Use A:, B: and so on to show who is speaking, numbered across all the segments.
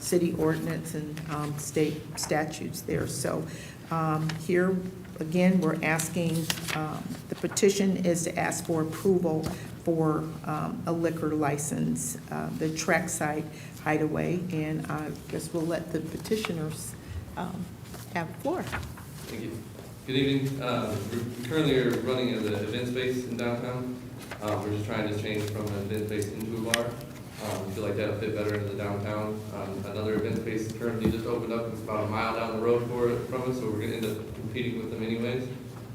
A: city ordinance and um, state statutes there. So um, here, again, we're asking, um, the petition is to ask for approval for um, a liquor license, uh, the Trackside Hideaway, and I guess we'll let the petitioners um, have the floor.
B: Thank you. Good evening. Uh, we Currently, are running as an event space in downtown. Uh, We're just trying to change from an event space into a bar. Um, We feel like that'll fit better into the downtown. Um, Another event space currently just opened up, it's about a mile down the road for, from us, so we're gonna end up competing with them anyways.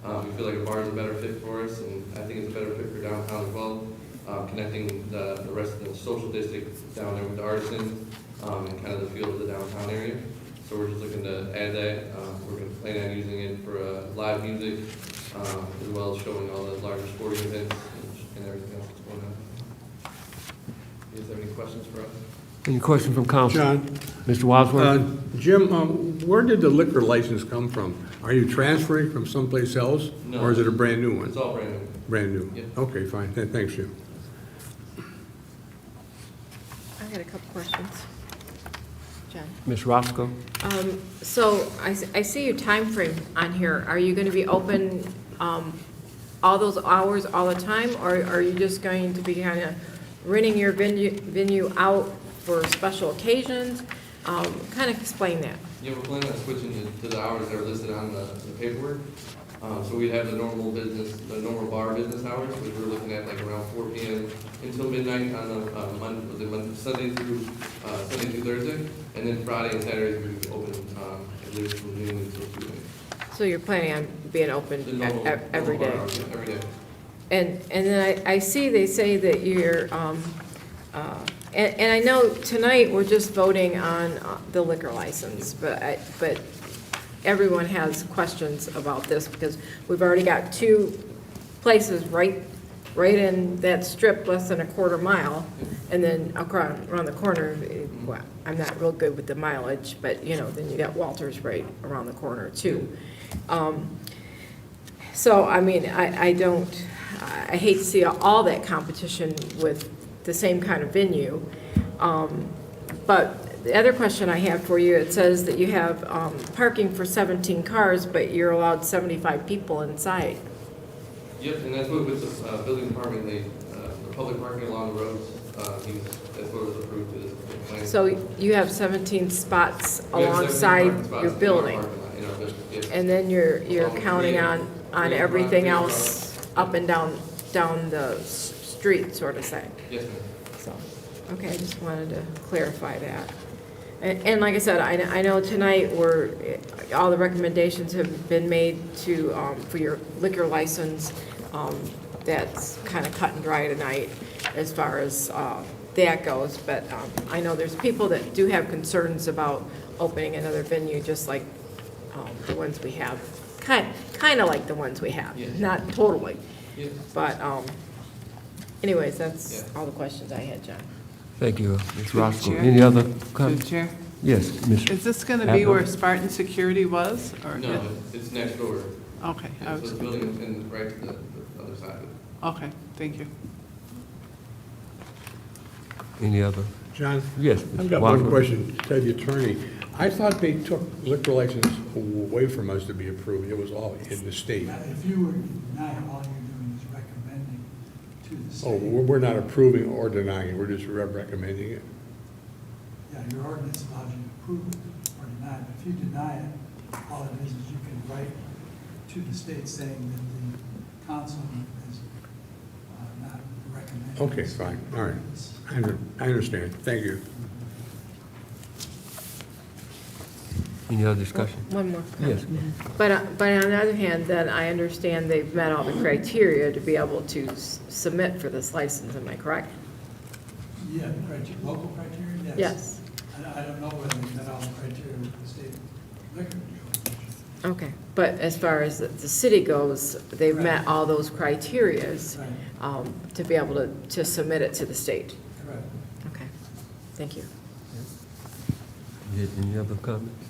B: Um, We feel like a bar is a better fit for us, and I think it's a better fit for downtown as well, Uh, connecting the the rest of the social district down there with the artisans um, and kind of the feel of the downtown area. So we're just looking to add that. Um, We're going to plan on using it for uh, live music, um, as well as showing all the larger sporting events and- and everything else that's going on. You guys have any questions for us?
C: Any question from council?
D: John,
C: Mr. Wadsworth?
D: uh, Jim, um, where did the liquor license come from? Are you transferring from someplace else?
B: No.
D: Or is it a brand-new
B: It's
D: one?
B: all brand new.
D: Brand new?
B: Yeah.
D: Okay, fine, Th- thanks, Jim.
E: I had a couple questions. John?
C: Ms. Roscoe?
E: Um, So I s- I see your time frame on here. Are you going to be open um, all those hours all the time? Or are you just going to be kind of renting your venue venue out for special occasions? Kind of explain that.
B: Yeah, we're planning on switching to- to the hours that are listed on the the paperwork. Um, So we have the normal business, the normal bar business hours, which we're looking at like around four P M. until midnight on a Monday, was it Monday, Sunday through, uh, Sunday through Thursday. And then Friday and Saturday, we open um, at least from noon until two A.M.
E: So you're planning on being open
B: The
E: e-
B: normal-
E: e- every
B: normal
E: day?
B: hours, yeah, Every day.
E: And, and then I, I see they say that you're, um, uh, and, and I know tonight we're just voting on uh, the liquor license, but I, but everyone has questions about this because we've already got two places right, right in that strip, less than a quarter mile, and then across, around the corner, eh, well, I'm not real good with the mileage, but, you know, then you got Walters right around the corner too. Um, so, I mean, I, I don't, I hate to see all that competition with the same kind of venue. Um, But the other question I have for you, it says that you have um, parking for 17 cars, but you're allowed 75 people inside.
B: Yep, and that's what with the uh, building department, they, uh, the public parking along the roads, uh, he was- that's what was approved to this plan.
E: So you have 17 spots
B: We have 17
E: alongside
B: parking spots
E: your
B: in our
E: building.
B: parking lot, in our building, yes.
E: And then you're, you're
B: Um,
E: counting
B: yeah.
E: on, on
B: Yeah,
E: everything
B: right, yeah.
E: else up and down, down the s- street, sort of thing.
B: Yes, ma'am.
E: So, okay, I just wanted to clarify that. And, and like I said, I, I know tonight we're, all the recommendations have been made to, um, for your liquor license. Um, that's kind of cut and dry tonight as far as, uh, that goes. But, um, I know there's people that do have concerns about opening another venue, just like, um, the ones we have. Kind, kind of like the ones we have,
B: Yes.
E: not totally.
B: Yes.
E: But, um, anyways, that's
B: Yeah.
E: all the questions I had, John. Oh,
C: Thank you, Ms. Roscoe.
F: Chair?
C: Any other
F: Through
C: comments?
F: the chair.
C: Yes, Ms.
F: Is this going to be where Spartan Security was? or-
B: No, it's- it's next door.
F: Oh, Okay, I
B: Yeah, So
F: was-
B: the building is in right to the the other side of it.
F: okay, thank you.
C: Any other?
D: John,
C: Yes,
D: I've
C: Mr.
D: got one
C: Wadsworth?
D: question to the attorney. I thought they took liquor license away from us to be approved, it was all in the state.
G: Yeah, If you were to deny, it, all you're doing is recommending to the
D: Oh,
G: state.
D: we're we're not approving or denying, we're just re- recommending it.
G: Yeah, your ordinance allows you to approve it or deny it. If you deny it, all it is is you can write to the state saying that the council is uh, not recommending.
D: Okay,
G: this
D: fine, all right.
G: ordinance.
D: I under- I understand, thank you.
C: Any other discussion?
E: One more.
C: Yes,
E: But, uh, but on the other hand, then I understand they've met all the criteria to be able to s- submit for this license, am I correct?
G: Yeah, the criteria, local criteria, yes.
E: Yes.
G: I I don't know whether they met all the criteria with the state liquor control. Commission.
E: Okay, but as far as the- the city goes, they've met
G: Right.
E: all those criterias
G: Right.
E: um, to be able to, to submit it to the state.
G: Correct.
E: Okay, thank you.
C: Yes, any other comments?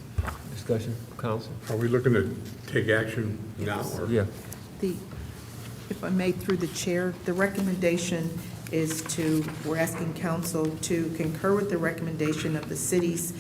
C: Discussion, council?
D: Are we looking to take action now? or-
C: Yeah,
A: The, if I may, through the chair, the recommendation is to, we're asking council to concur with the recommendation of the city's